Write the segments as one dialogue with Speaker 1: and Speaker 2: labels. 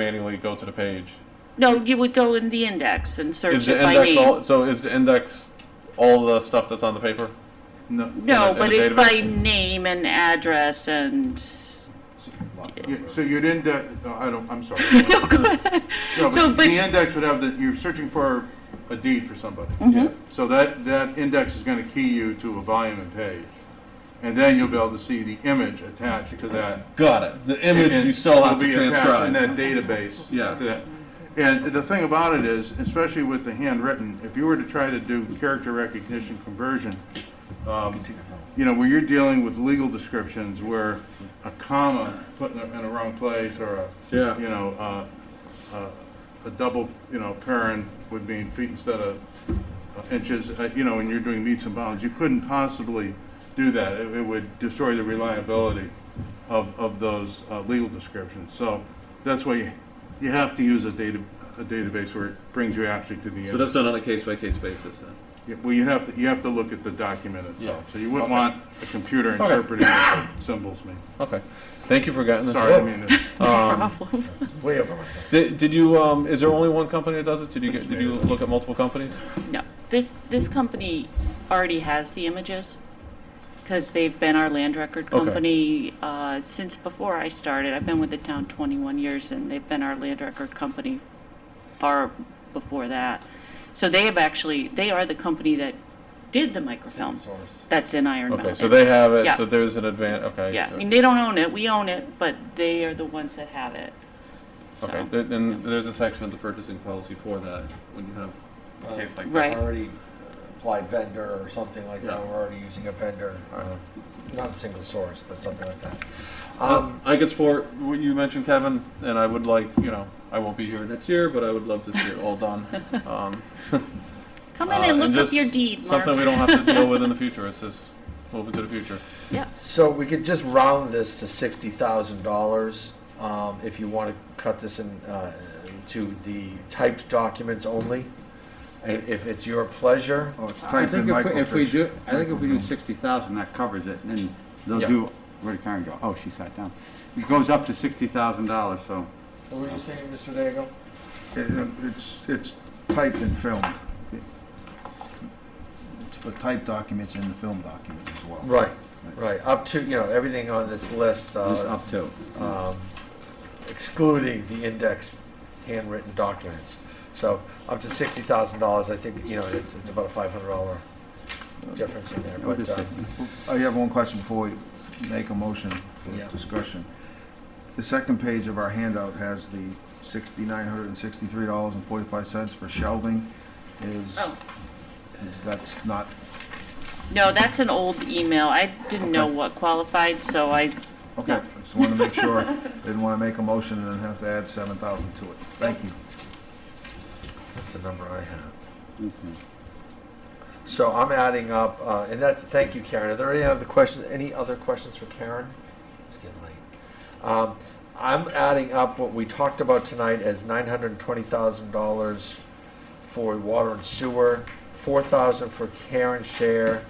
Speaker 1: manually go to the page.
Speaker 2: No, you would go in the index and
Speaker 1: Is
Speaker 2: search
Speaker 1: the
Speaker 2: it by
Speaker 1: index
Speaker 2: name.
Speaker 1: all, so is the index all the stuff that's on the paper?
Speaker 3: No.
Speaker 1: in
Speaker 2: No,
Speaker 1: the- in
Speaker 2: but
Speaker 1: the
Speaker 2: it's by
Speaker 1: database?
Speaker 2: name and address and,
Speaker 3: You- So you'd index, oh, I don't, I'm sorry.
Speaker 2: no, go ahead.
Speaker 3: No,
Speaker 2: So,
Speaker 3: but
Speaker 2: but,
Speaker 3: the index would have the, you're searching for a deed for somebody.
Speaker 1: Yeah.
Speaker 3: So that, that index is going to key you to a volume and page. And then you'll be able to see the image attached to that.
Speaker 1: Got it. The image
Speaker 3: And
Speaker 1: you still have
Speaker 3: will
Speaker 1: to
Speaker 3: be attached
Speaker 1: transcribe.
Speaker 3: In that database.
Speaker 1: Yeah.
Speaker 3: to that. And the thing about it is, especially with the handwritten, if you were to try to do character recognition conversion, um, you know, where you're dealing with legal descriptions where a comma put in the, in the wrong place or a,
Speaker 1: Yeah.
Speaker 3: you know, uh, uh, a double, you know, paren would mean feet instead of inches, uh, you know, and you're doing meets and bounds, you couldn't possibly do that. It, it would destroy the reliability of, of those uh, legal descriptions. So that's why you, you have to use a data, a database where it brings you actually to the
Speaker 1: So
Speaker 3: end.
Speaker 1: that's done on a case by case basis. Then.
Speaker 3: Yeah, Well, you have to, you have to look at the document itself.
Speaker 1: Yeah.
Speaker 3: So you wouldn't
Speaker 1: Okay.
Speaker 3: want a computer interpreting what symbols mean.
Speaker 1: Okay. Thank you for getting this.
Speaker 3: Sorry, I mean, it's-
Speaker 1: Um,
Speaker 2: problem.
Speaker 4: Way over my head.
Speaker 1: Did, did you? Um, is there only one company that does it? Did you get? Did you look at multiple companies?
Speaker 2: no, this, this company already has the images because they've been our land record
Speaker 1: Okay.
Speaker 2: company uh, since before I started. I've been with the town 21 years and they've been our land record company far before that. So they have actually, they are the company that did the microfilm
Speaker 4: Source.
Speaker 2: that's in Iron Mountain.
Speaker 1: Okay. So they have it.
Speaker 2: Yeah.
Speaker 1: So there's an advance. Okay.
Speaker 2: Yeah, I
Speaker 1: so-
Speaker 2: mean, they don't own it, we own it, but they are the ones that have it. So,
Speaker 1: okay. There, and there's a section of the purchasing policy for that when you have a case like
Speaker 2: Right.
Speaker 4: Already applied vendor or something like that,
Speaker 1: Yeah.
Speaker 4: we're already using a vendor, Uh,
Speaker 1: that. All right.
Speaker 4: not single source, but something like that.
Speaker 1: Um,
Speaker 4: Um,
Speaker 1: I could support what you mentioned, Kevin, and I would like, you know, I won't be here next year, but I would love to see it all done. Um,
Speaker 2: Come
Speaker 1: uh,
Speaker 2: in and look up
Speaker 1: just
Speaker 2: your deed, Mark.
Speaker 1: Something we don't have to deal with in the future. It's just moving to the future.
Speaker 2: Yeah,
Speaker 4: So we could just round this to sixty thousand dollars, um, if you want to cut this in, uh, to the typed documents only. I- If it's your pleasure,
Speaker 5: Oh, it's
Speaker 6: I
Speaker 5: typed in
Speaker 6: think if we- if we
Speaker 5: microfiche.
Speaker 6: do, I think if we do sixty thousand, that covers it, and then they'll
Speaker 1: Yeah.
Speaker 6: do, where did Karen go? Oh, she sat down. It goes up to sixty thousand dollars, so.
Speaker 4: what were you saying, Mr. Daigle?
Speaker 5: It- it- It's, it's typed and filmed. It's for typed documents and the film documents as well.
Speaker 4: Right, right, up to, you know, everything on this list,
Speaker 6: It's
Speaker 4: uh,
Speaker 6: up to.
Speaker 4: um, excluding the indexed handwritten documents. So up to sixty thousand dollars, I think, you know, it's, it's about a five hundred dollar difference in there, but, uh,
Speaker 5: I have one question before we make a motion
Speaker 4: Yeah.
Speaker 5: for discussion. The second page of our handout has the sixty-nine hundred and sixty-three dollars and forty-five cents for shelving. Is,
Speaker 2: oh,
Speaker 5: is that's not,
Speaker 2: no, that's an old email, I didn't know what qualified, so I,
Speaker 5: okay, just wanted to make sure, didn't want to make a motion and then have to add seven thousand to it. Thank you.
Speaker 4: that's the number I have.
Speaker 6: Okay.
Speaker 4: So I'm adding up, uh, and that's, thank you, Karen. Are there any other questions, any other questions for Karen? It's getting late. Um, I'm adding up what we talked about tonight as nine hundred and twenty thousand dollars for water and sewer, four thousand for Karen's share.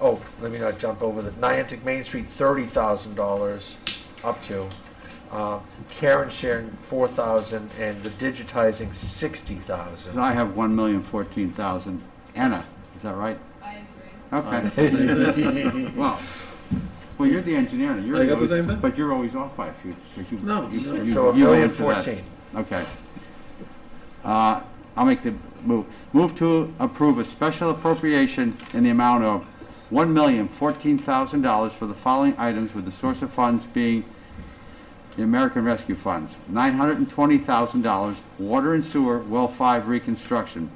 Speaker 4: Oh, let me not jump over the, Niantic Main Street, thirty thousand dollars up to. Uh, Karen's share, four thousand, and the digitizing, sixty
Speaker 6: So
Speaker 4: thousand.
Speaker 6: I have one million fourteen thousand. Anna, is that right?
Speaker 7: I agree.
Speaker 6: Okay, well, well, you're the engineer, and you're.
Speaker 1: I got the
Speaker 6: always-
Speaker 1: same thing?
Speaker 6: But you're always off by a few, because you.
Speaker 1: No,
Speaker 6: you-
Speaker 1: no.
Speaker 6: you-
Speaker 4: So a
Speaker 6: you go
Speaker 4: million
Speaker 6: into that.
Speaker 4: fourteen.
Speaker 6: Okay. Uh, I'll make the move. Move to approve a special appropriation in the amount of one million fourteen thousand dollars for the following items with the source of funds being the American Rescue Funds, nine hundred and twenty thousand dollars, water and sewer, well five reconstruction,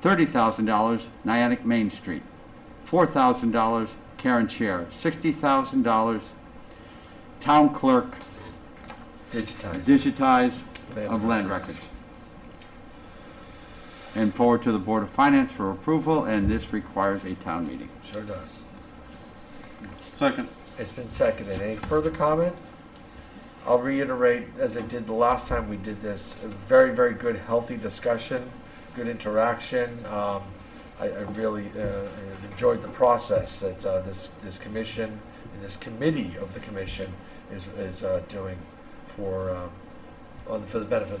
Speaker 6: thirty thousand dollars, Niantic Main Street, four thousand dollars, Karen Chair, sixty thousand dollars, town clerk,
Speaker 4: Digitizing.
Speaker 6: digitize of
Speaker 4: Land
Speaker 6: land
Speaker 4: records.
Speaker 6: records. And forward to the Board of Finance for approval, and this requires a town meeting.
Speaker 4: Sure does.
Speaker 1: Second.
Speaker 4: It's been seconded. Any further comment? I'll reiterate, as I did the last time we did this, a very, very good, healthy discussion, good interaction. Um, I, I really uh, enjoyed the process that uh, this, this commission and this committee of the commission is, is uh, doing for um, on, for the benefit of the